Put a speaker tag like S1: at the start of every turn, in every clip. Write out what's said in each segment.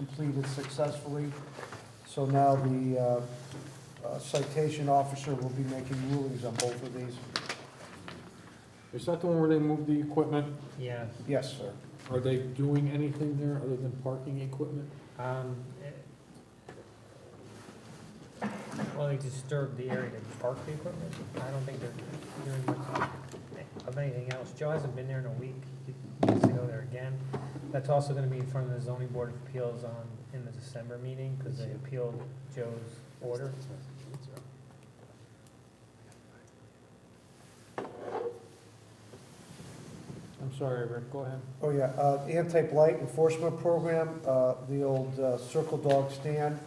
S1: completed successfully. So now the uh, uh, citation officer will be making rulings on both of these.
S2: Is that the one where they move the equipment?
S3: Yeah,
S1: Yes, sir.
S2: Are they doing anything there other than parking equipment?
S3: um, eh, well, they disturb the area to park the equipment. I don't think they're doing much of anything else. Joe hasn't been there in a week. He needs to go there again. That's also gonna be in front of the zoning board of appeals on, in the December meeting, because they appealed Joe's order.
S2: I'm sorry, Rick, go ahead.
S1: Oh, yeah, uh, anti-blight enforcement program, uh, the old uh, circle dog stand,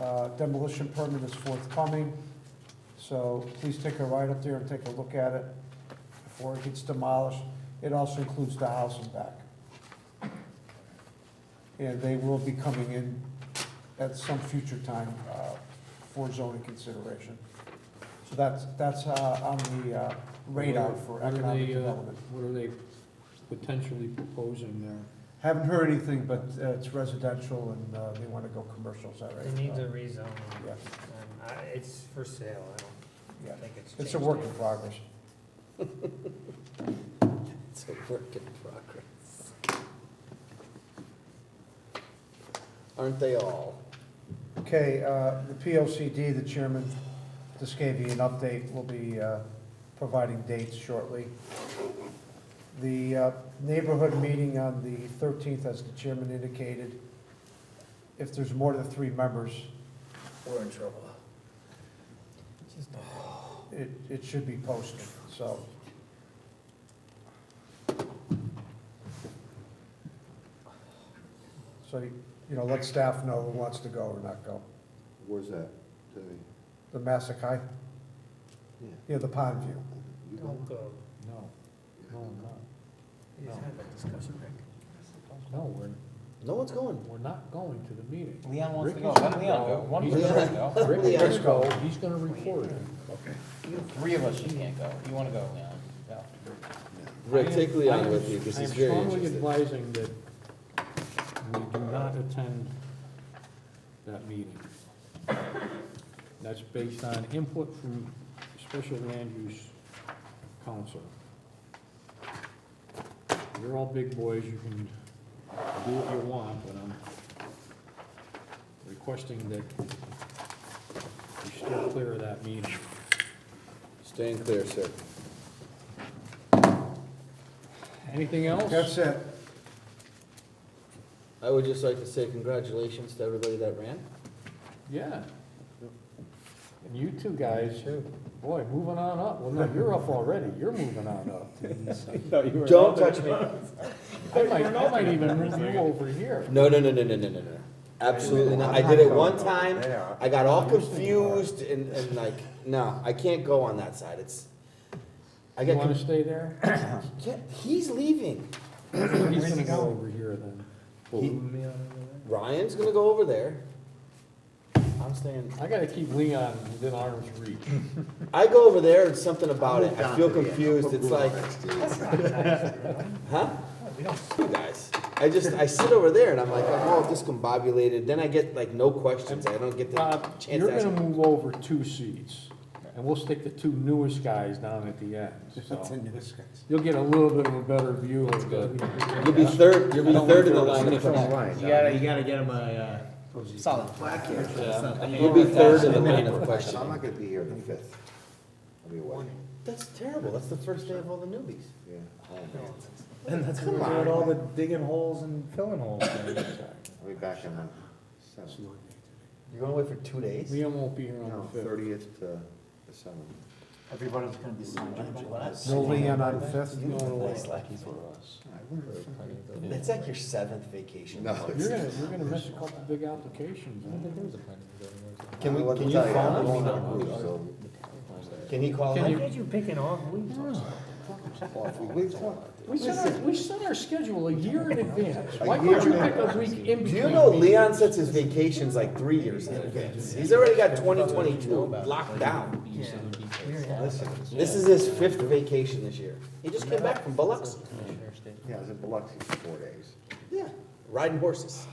S1: uh, demolition permit is forthcoming. So please take a ride up there and take a look at it before it gets demolished. It also includes the house and back. And they will be coming in at some future time, uh, for zoning consideration. So that's, that's, uh, on the uh, radar for
S2: What are
S1: economic
S2: they, uh,
S1: development.
S2: What are they potentially proposing there?
S1: Haven't heard anything, but uh, it's residential and uh, they want to go commercial, is that right?
S3: It needs a rezone.
S1: Yeah,
S3: Um, I, it's for sale. I
S1: yeah.
S3: don't think it's changed.
S1: It's a work in progress.
S4: It's a work in progress. Aren't they all?
S1: Okay, uh, the POCD, the chairman just gave you an update. We'll be uh, providing dates shortly. The uh, neighborhood meeting on the 13th, as the chairman indicated, if there's more than three members,
S4: We're in trouble.
S1: it, it should be posted, so. So, you know, let staff know who wants to go or not go.
S5: Where's that? Tell me.
S1: The Masakai,
S5: Yeah.
S1: near the pond view.
S5: You go.
S3: Don't go.
S2: No, no, I'm not.
S3: You just had that discussion, Rick.
S2: No, we're,
S4: No one's going.
S2: we're not going to the meeting.
S6: Leon wants to
S2: Rick
S6: go,
S2: is
S6: let
S2: gonna go.
S6: Leon go, one
S2: He's
S6: person
S2: gonna-
S6: can go,
S2: Rick is
S4: Leon's
S2: gonna go,
S4: going.
S2: he's gonna report it.
S6: three of us, you can't go, you wanna go, Leon, go.
S4: Rick,
S2: I
S4: take
S2: am- I
S4: Leon
S2: am-
S4: with you, because he's very
S2: I am strongly
S4: interested.
S2: advising that we do not attend that meeting. That's based on input from Special Land Use Council. You're all big boys, you can do what you want, but I'm requesting that you steer clear of that meeting.
S4: Staying clear, sir.
S2: Anything else?
S1: That's it.
S4: I would just like to say congratulations to everybody that ran.
S2: Yeah. And you two guys, boy, moving on up. Well, no, you're up already. You're moving on up.
S4: Don't touch me.
S2: I might, I might even move you over here.
S4: No, no, no, no, no, no, no, no. Absolutely not. I did it one time. I got all confused and, and like, no, I can't go on that side. It's, I
S2: You
S4: got,
S2: wanna
S4: con-
S2: stay there?
S4: Yeah, he's leaving.
S2: He's gonna go over here then.
S4: Ryan's gonna go over there. I'm staying.
S2: I gotta keep Leon within arm's reach.
S4: I go over there and something about it, I feel confused, it's like, huh? You guys, I just, I sit over there and I'm like, I'm all discombobulated, then I get like no questions, I don't get the
S2: Bob,
S4: chance
S2: Uh, you're
S4: to ask.
S2: gonna move over two seats and we'll stick the two newest guys down at the end, so. You'll get a little bit of a better view of the.
S4: You'll be third, you'll be third in the lineup,
S6: You gotta, you gotta get him a, uh. Solid.
S4: you'll be third in the line of
S5: So I'm
S4: questioning.
S5: not gonna be here the fifth. I'll be away.
S4: That's terrible, that's the first day of all the newbies.
S5: Yeah.
S6: And that's when we're doing all the digging holes and filling holes.
S5: I'll be back on the seventh.
S4: You're going away for two days?
S2: Leon won't be here on
S5: No,
S2: the fifth.
S5: thirtieth to the seventh.
S6: Everybody's gonna be
S1: No Leon on the fifth.
S4: You don't
S1: No.
S4: place lucky for us. It's like your seventh vacation.
S5: No.
S2: You're gonna, you're gonna miss a couple big applications, man.
S4: Can we,
S5: Well,
S4: can you
S5: tell I'm
S4: phone
S5: going
S4: him?
S5: on a cruise, so-
S4: Can he call
S3: Why
S4: in?
S3: did you pick an off week?
S5: Well, if we leave tomorrow-
S2: We set our, we set our schedule a year in advance.
S5: A
S2: Why
S5: year
S2: can't you
S5: in
S2: pick a week in between?
S4: Do you know
S2: meetings?
S4: Leon sets his vacations like three years in advance? He's already got twenty twenty-two locked down.
S3: Yeah. We already had
S4: Listen, this is his fifth vacation this year. He just came back from Biloxi.
S5: Yeah, I was in Biloxi for four days.
S4: Yeah, riding horses.